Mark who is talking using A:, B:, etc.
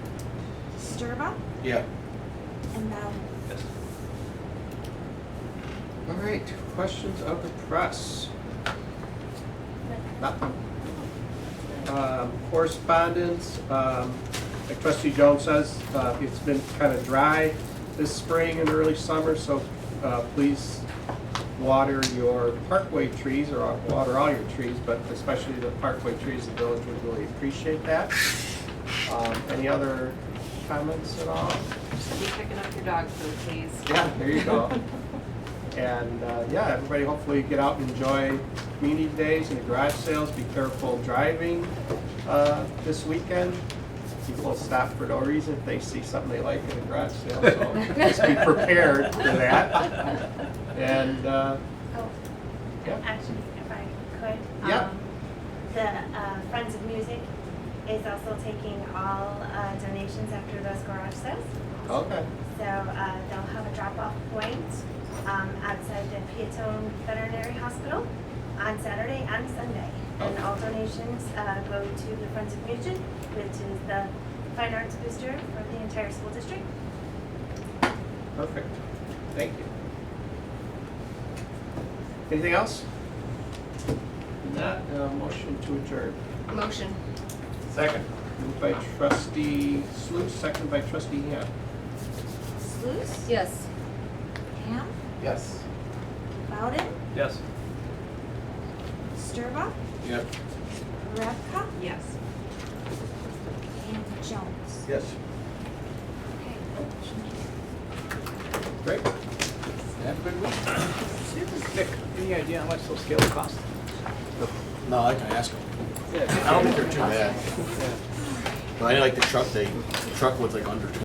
A: Sturba
B: Yeah.
A: and Bowden.
C: Yes.
B: All right, questions of the press? Nothing. Um, Correspondence, um, like trustee Jones says, uh, it's been kind of dry this spring and early summer, so uh, please water your parkway trees, or water all your trees, but especially the parkway trees, the village would really appreciate that. Um, Any other comments at all?
D: Just keep picking up your dog food, please.
B: Yeah, there you go. And uh, yeah, everybody hopefully get out and enjoy community days and the garage sales. Be careful driving uh, this weekend. People will stop for no reason if they see something they like in a garage sale, so just be prepared for that. And uh,
E: Oh,
B: yeah,
E: actually, if I could.
B: Yeah.
E: um, The uh, Friends of Music is also taking all uh, donations after those garage sales.
B: okay,
E: So uh, they'll have a drop-off point um, outside the Peatone Veterinary Hospital on Saturday and Sunday. And all donations uh, go to the Friends of Music, which is the fine arts booster for the entire school district.
B: perfect. Thank you. Anything else? Not, uh, motion to adjourn.
D: Motion.
B: Second. Moved by trustee Sluse, second by trustee Ham.
A: Sluse,
D: Yes.
A: Ham,
B: Yes.
A: Bowden,
C: Yes.
A: Sturba,
B: Yep.
A: Revka,
D: Yes.
A: and Jones.
B: Yes.
A: Okay.
B: Great. Have a good week. Nick, any idea how much those scales cost?
F: No, I can ask them.
B: Yeah.
F: I don't think they're too bad. But I like the truck, they, the truck was like under twenty